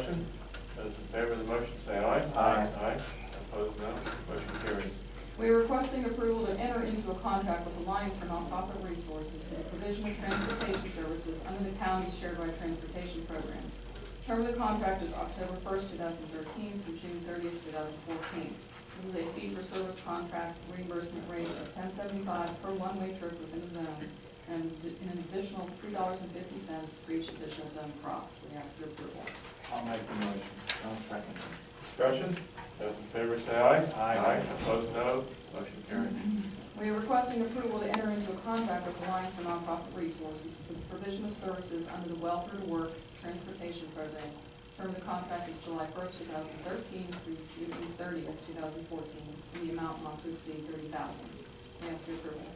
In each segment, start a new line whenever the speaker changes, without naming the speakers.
discussion? Those in favor of the motion say aye.
Aye.
Aye. Opposed, none. Motion carries.
We are requesting approval to enter into a contract with Alliance for Nonprofit Resources for the provision of transportation services under the county's shared ride transportation program. Term of the contract is October first, two thousand thirteen through June thirtieth, two thousand fourteen. This is a fee-for-service contract reimbursement rate of ten seventy-five per one-way trip within the zone and an additional three dollars and fifty cents for each additional zone crossed. We ask your approval.
I'll make the motion. I'll second it.
Discussion? Those in favor say aye.
Aye.
Opposed, no. Motion carries.
We are requesting approval to enter into a contract with Alliance for Nonprofit Resources for the provision of services under the Welfare to Work Transportation Program. Term of the contract is July first, two thousand thirteen through June thirtieth, two thousand fourteen, in the amount not to exceed thirty thousand. We ask your approval.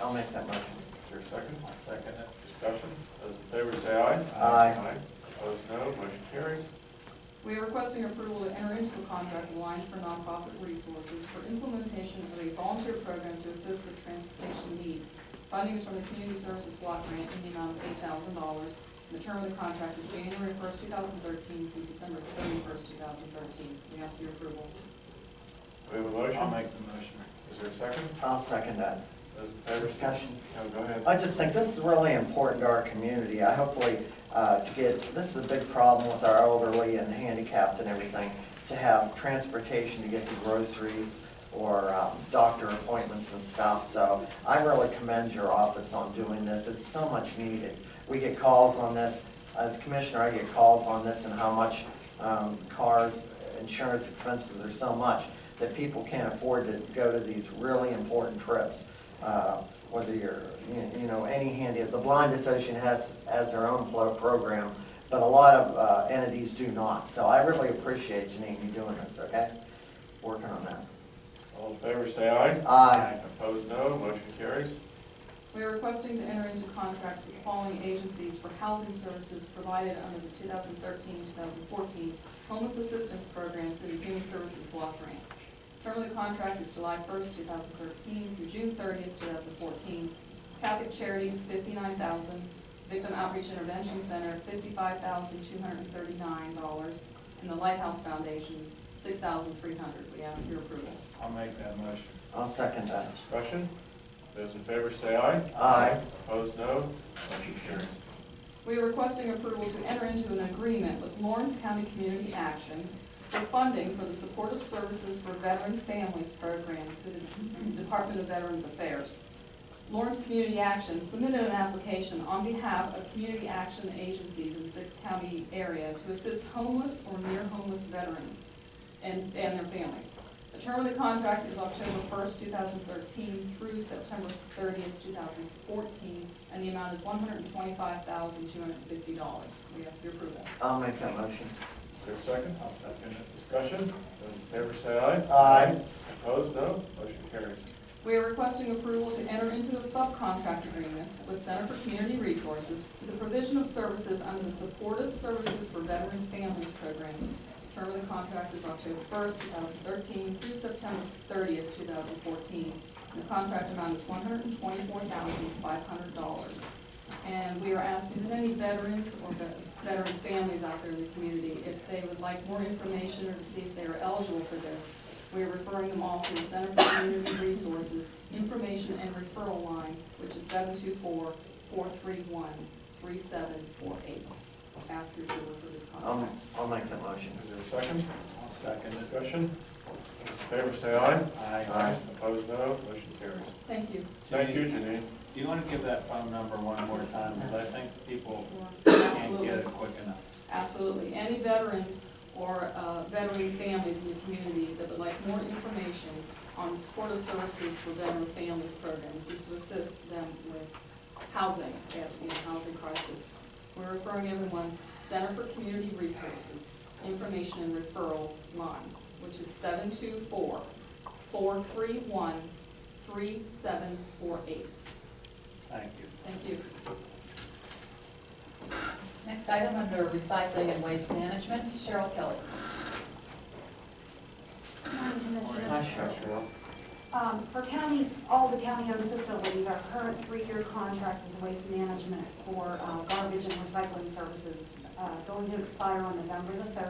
I'll make that motion.
Is there a second? Second. Discussion? Those in favor say aye.
Aye.
Opposed, no. Motion carries.
We are requesting approval to enter into a contract with Alliance for Nonprofit Resources for implementation of a volunteer program to assist with transportation needs. Funding is from the Community Services Block Grant in the amount of eight thousand dollars. The term of the contract is January first, two thousand thirteen through December thirty-first, two thousand thirteen. We ask for your approval.
We have a motion.
I'll make the motion.
Is there a second?
I'll second that.
Those in favor? say-
Discussion.
No, go ahead.
I just think this is really important to our community. I hopefully, uh, to get, this is a big problem with our elderly and handicapped and everything, to have transportation to get to groceries or um, doctor appointments and stuff. So I really commend your office on doing this. It's so much needed. We get calls on this, as commissioner, I get calls on this and how much um, cars, insurance expenses are so much that people can't afford to go to these really important trips. Uh, Whether you're, you- you know, any handy, the Blind Association has, has their own plo- program, but a lot of uh, entities do not. So I really appreciate Janine, you doing this, okay? Working on that.
All in favor say aye.
Aye.
Opposed, no. Motion carries.
We are requesting to enter into contracts with the following agencies for housing services provided under the 2013-2014 Homeless Assistance Program through the Human Services Block Grant. Term of the contract is July 1st, 2013 through June 30th, 2014. Catholic Charities, $59,000. Victim Outreach Intervention Center, $55,239. And the Lighthouse Foundation, $6,300. We ask your approval.
I'll make that motion.
I'll second that.
Discussion? Those in favor say aye.
Aye.
Opposed, no. Motion carries.
We are requesting approval to enter into an agreement with Lawrence County Community Action for funding for the Supportive Services for Veteran Families Program through the Department of Veterans Affairs. Lawrence Community Action submitted an application on behalf of community action agencies in the Six County area to assist homeless or near homeless veterans and, and their families. The term of the contract is October first, two thousand thirteen through September thirtieth, two thousand fourteen, and the amount is one hundred and twenty-five thousand, two hundred and fifty dollars. We ask your approval.
I'll make that motion.
Is there a second?
I'll second it.
Discussion? Those in favor say aye.
Aye.
Opposed, no. Motion carries.
We are requesting approval to enter into a subcontract agreement with Center for Community Resources for the provision of services under the Supportive Services for Veteran Families Program. Term of the contract is October first, two thousand thirteen through September thirtieth, two thousand fourteen. The contract amount is one hundred and twenty-four thousand, five hundred dollars. And we are asking that any veterans or ve- veteran families out there in the community, if they would like more information or to see if they are eligible for this, we are referring them all to the Center for Community Resources Information and Referral Line, which is 724-431-3748. Ask your approval for this
I'll,
contract.
I'll make that motion.
Is there a second?
I'll second it.
Discussion? Those in favor say aye.
Aye.
Opposed, no. Motion carries.
Thank you.
Thank you, Janine.
Do you want to give that phone number one more time, because I think people can't
Absolutely.
get it quick enough.
Absolutely. Any veterans or uh, veteran families in the community that would like more information on the supportive services for veteran families programs, is to assist them with housing, if they have to be in a housing crisis. We're referring everyone, Center for Community Resources, Information and Referral Line, which is 724 431 3748.
Thank you.
Thank you.
Next item under recycling and waste management, Cheryl Kelly.
County Commissioners.
Hi, Cheryl.
Um, For county, all the county-owned facilities, our current three-year contract with Waste Management for uh, garbage and recycling services uh, going to expire on November the 3rd.